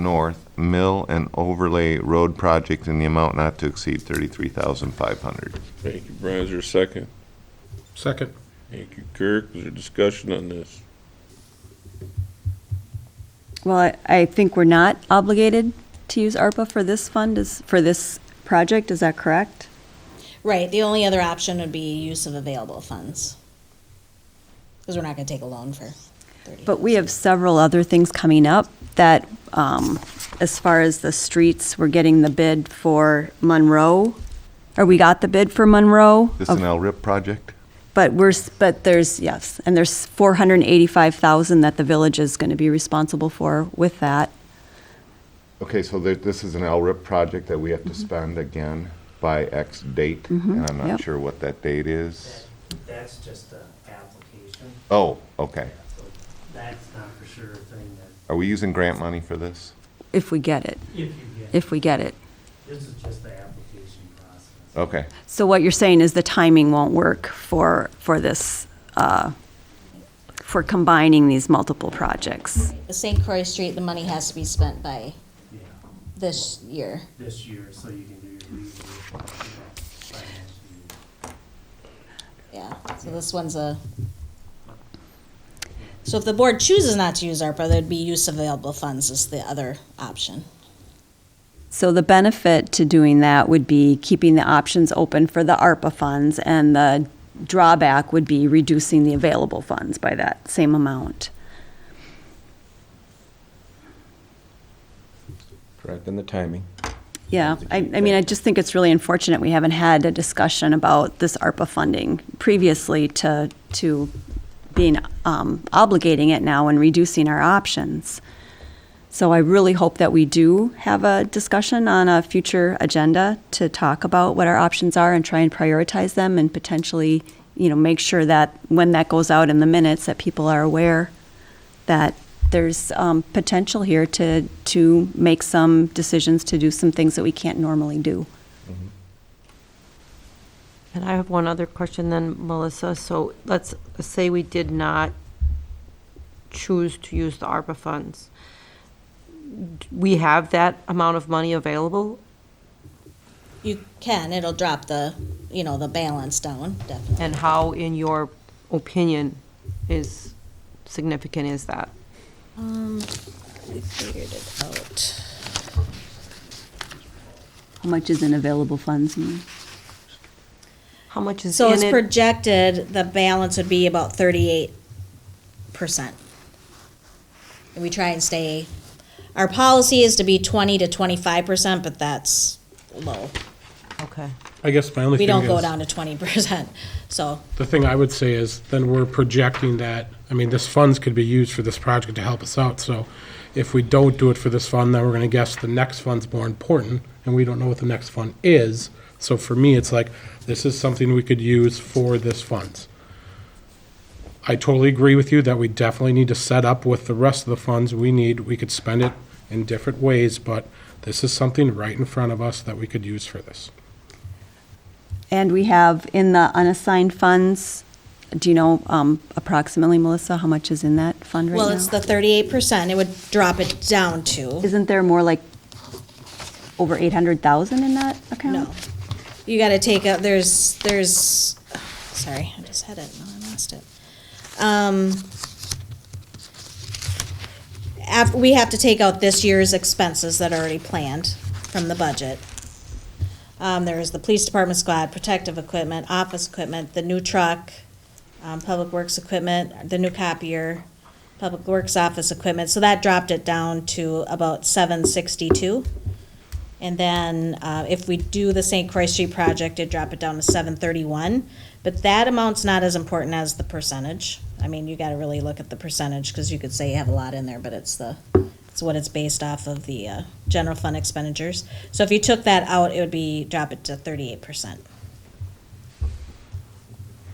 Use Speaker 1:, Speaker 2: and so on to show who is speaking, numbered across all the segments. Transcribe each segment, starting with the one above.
Speaker 1: North Mill and Overlay Road Project in the amount not to exceed thirty-three thousand five hundred.
Speaker 2: Thank you, Brian. Is there a second?
Speaker 3: Second.
Speaker 2: Thank you, Kirk. Is there discussion on this?
Speaker 4: Well, I- I think we're not obligated to use ARPA for this fund, is, for this project, is that correct?
Speaker 5: Right, the only other option would be use of available funds. Because we're not gonna take a loan for thirty.
Speaker 4: But we have several other things coming up that, um, as far as the streets, we're getting the bid for Monroe, or we got the bid for Monroe.
Speaker 1: This an LRIP project?
Speaker 4: But we're, s- but there's, yes, and there's 485,000 that the village is going to be responsible for with that.
Speaker 1: Okay, so there- this is an LRIP project that we have to spend again by X date, and I'm not
Speaker 4: yep.
Speaker 1: sure what that date is.
Speaker 6: That's just an application,
Speaker 1: Oh, okay.
Speaker 6: so that's not for sure a thing that,
Speaker 1: Are we using grant money for this?
Speaker 4: If we get it,
Speaker 6: if you get,
Speaker 4: if we get it.
Speaker 6: this is just the application process.
Speaker 1: Okay,
Speaker 4: So what you're saying is the timing won't work for, for this, uh, for combining these multiple projects?
Speaker 5: The St. Croix Street, the money has to be spent by
Speaker 6: Yeah,
Speaker 5: this year.
Speaker 6: this year, so you can do your legal, you know, financial year.
Speaker 5: Yeah, so this one's a. So if the board chooses not to use ARPA, there'd be use of available funds is the other option.
Speaker 4: So the benefit to doing that would be keeping the options open for the ARPA funds, and the drawback would be reducing the available funds by that same amount.
Speaker 7: Correct, and the timing.
Speaker 4: Yeah, I, I mean, I just think it's really unfortunate we haven't had a discussion about this ARPA funding previously to, to being, um, obligating it now and reducing our options. So I really hope that we do have a discussion on a future agenda to talk about what our options are and try and prioritize them and potentially, you know, make sure that when that goes out in the minutes, that people are aware that there's um, potential here to, to make some decisions, to do some things that we can't normally do.
Speaker 8: And I have one other question then, Melissa. So let's say we did not choose to use the ARPA funds. D- We have that amount of money available?
Speaker 5: You can, it'll drop the, you know, the balance down, definitely.
Speaker 8: And how, in your opinion, is significant is that?
Speaker 5: Um, we figured it out.
Speaker 4: How much is in available funds?
Speaker 8: How much is
Speaker 5: So
Speaker 8: in
Speaker 5: it's
Speaker 8: it?
Speaker 5: projected, the balance would be about thirty-eight percent. And we try and stay, our policy is to be twenty to twenty-five percent, but that's low.
Speaker 8: Okay.
Speaker 3: I guess my only
Speaker 5: We
Speaker 3: thing
Speaker 5: don't go
Speaker 3: is,
Speaker 5: down to twenty percent, so,
Speaker 3: the thing I would say is, then we're projecting that, I mean, this funds could be used for this project to help us out, so if we don't do it for this fund, then we're gonna guess the next fund's more important, and we don't know what the next fund is. So for me, it's like, this is something we could use for this funds. I totally agree with you that we definitely need to set up with the rest of the funds we need. We could spend it in different ways, but this is something right in front of us that we could use for this.
Speaker 4: And we have in the unassigned funds, do you know um, approximately, Melissa, how much is in that fund right now?
Speaker 5: well, it's the thirty-eight percent, it would drop it down to,
Speaker 4: Isn't there more like over 800,000 in that account?
Speaker 5: no. You gotta take out, there's, there's, sorry, I just had it, no, I lost it. Um, af, we have to take out this year's expenses that are already planned from the budget. Um, there is the police department squad, protective equipment, office equipment, the new truck, um, public works equipment, the new copier, public works office equipment, so that dropped it down to about seven sixty-two. And then, uh, if we do the St. Croix Street project, it'd drop it down to seven thirty-one, but that amount's not as important as the percentage. I mean, you gotta really look at the percentage, cause you could say you have a lot in there, but it's the, it's what it's based off of the, uh, general fund expenditures. So if you took that out, it would be, drop it to thirty-eight percent.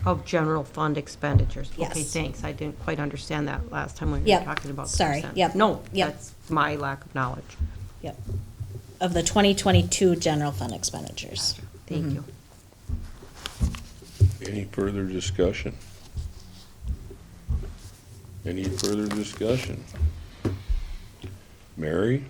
Speaker 8: Of general fund expenditures? Okay,
Speaker 5: Yes.
Speaker 8: thanks. I didn't quite understand that last time when we were
Speaker 5: Yep.
Speaker 8: talking about the
Speaker 5: Sorry.
Speaker 8: percent.
Speaker 5: Yep.
Speaker 8: No,
Speaker 5: Yep.
Speaker 8: that's my lack of knowledge.
Speaker 5: Yep. Of the twenty twenty-two general fund expenditures. Mm-hmm.
Speaker 8: Thank you.
Speaker 2: Any further discussion? Any further discussion? Mary,